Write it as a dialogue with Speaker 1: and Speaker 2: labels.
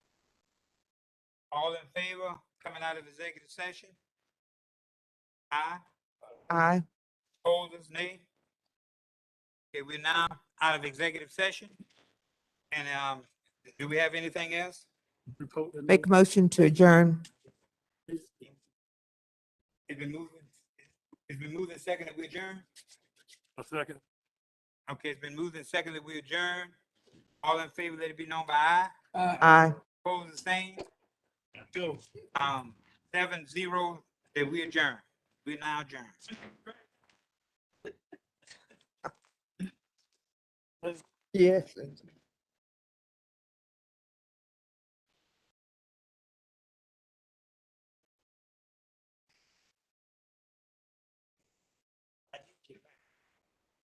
Speaker 1: All in favor, coming out of executive session? Aye,
Speaker 2: Aye.
Speaker 1: opposers, nay? Okay, we're now out of executive session. And, um, do we have anything else?
Speaker 3: Report the
Speaker 2: Make a motion to adjourn.
Speaker 1: It's been moved, it's been moved and seconded, we adjourn?
Speaker 3: A second.
Speaker 1: Okay, it's been moved and seconded, we adjourn. All in favor, let it be known by aye.
Speaker 2: Aye.
Speaker 1: Opposed, the same?
Speaker 3: Go.
Speaker 1: Um, seven, zero, that we adjourn. We now adjourn.
Speaker 2: Yes.